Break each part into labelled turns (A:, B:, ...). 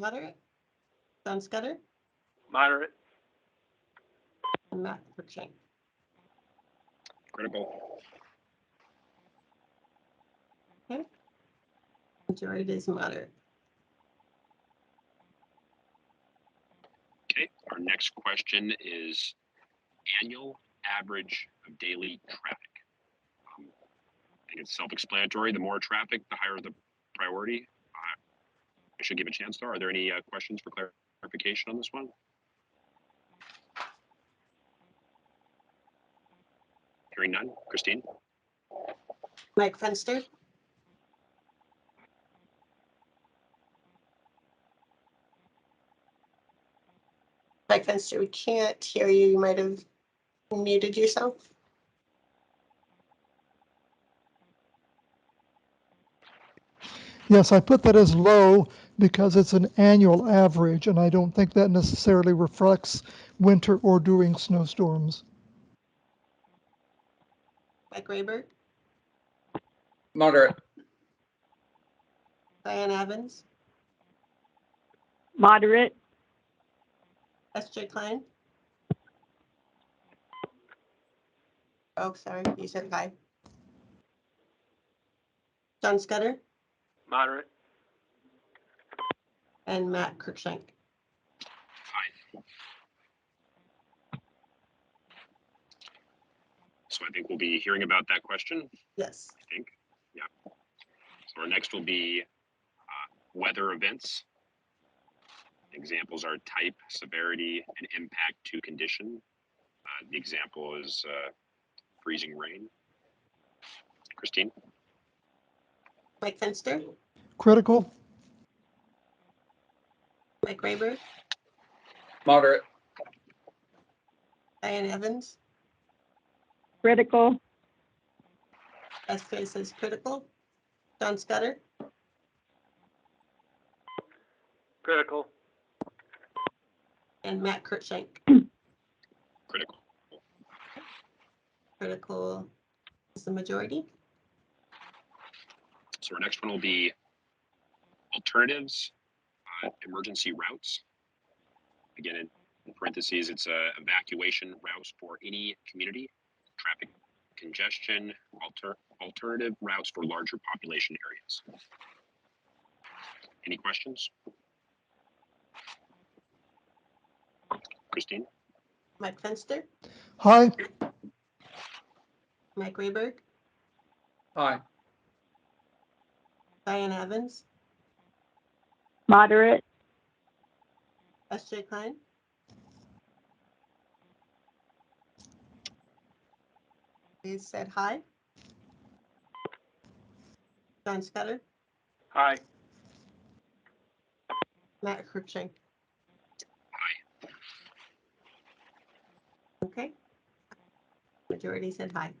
A: Moderate. John Scudder
B: Moderate.
A: and Matt Cruikshank.
C: critical.
A: Majority is moderate.
C: Okay, our next question is annual average of daily traffic. Um, I think it's self-explanatory. The more traffic, the higher the priority. Uh, I should give a chance though. Are there any uh, questions for clarification on this one? Hearing none. Christine?
A: Mike Fenster. Mike Fenster, we can't hear you. You might have muted yourself.
D: Yes, I put that as low because it's an annual average, and I don't think that necessarily reflects winter or during snowstorms.
A: Mike Rayberg,
E: Moderate.
A: Diane Evans,
F: Moderate,
A: SJ Klein. Oh, sorry, you said hi. John Scudder
B: Moderate.
A: and Matt Cruikshank.
C: So I think we'll be hearing about that question.
A: Yes.
C: I think. Yeah. So our next will be uh, weather events. Examples are type, severity, and impact to condition. Uh, the example is uh, freezing rain. Christine,
A: Mike Fenster,
D: Critical,
A: Mike Rayberg,
E: Moderate.
A: Diane Evans.
F: critical,
A: SK says critical. John Scudder,
B: Critical.
A: and Matt Kurtschank,
C: critical.
A: critical is the majority.
C: So our next one will be alternatives, uh, emergency routes. Again, in in parentheses, it's uh, evacuation routes for any community, traffic congestion, alter, alternative routes for larger population areas. Any questions? Christine,
A: Mike Fenster,
D: high,
A: Mike Rayberg,
E: Aye.
A: Diane Evans,
F: moderate,
A: SJ Klein, He said hi. John Scudder,
B: Aye.
A: Matt Kurtschank. Okay. Majority said hi.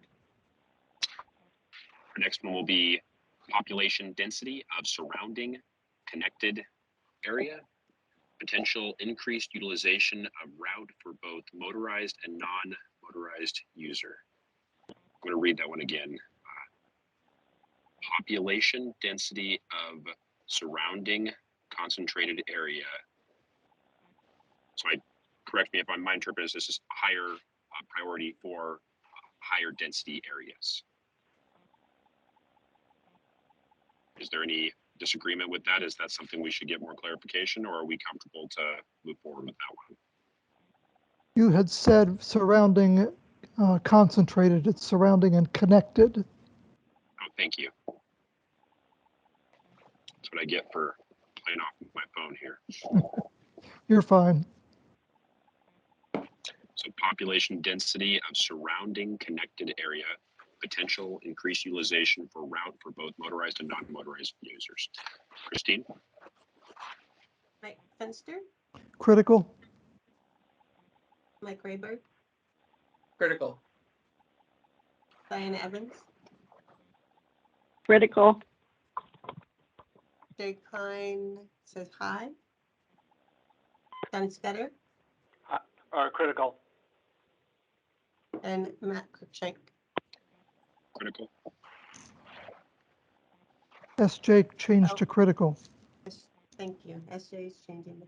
C: our next one will be population density of surrounding connected area, potential increased utilization of route for both motorized and non-motorized user. I'm going to read that one again. Uh, Population density of surrounding concentrated area. So I, correct me if I'm, my interpretation this is higher uh, priority for uh, higher density areas. Is there any disagreement with that? Is that something we should get more clarification or are we comfortable to move forward with that one?
D: you had said surrounding uh, concentrated, it's surrounding and connected.
C: Oh, thank you. That's what I get for playing off my phone here.
D: You're fine.
C: So population density of surrounding connected area, potential increased utilization for route for both motorized and non-motorized users. Christine,
A: Mike Fenster,
D: Critical,
A: Mike Rayberg,
E: Critical.
A: Diane Evans,
F: critical,
A: Jay Klein says hi. John Scudder
B: Or critical.
A: and Matt Cruikshank.
C: critical,
D: SJ changed to critical.
A: Thank you. SJ is changing the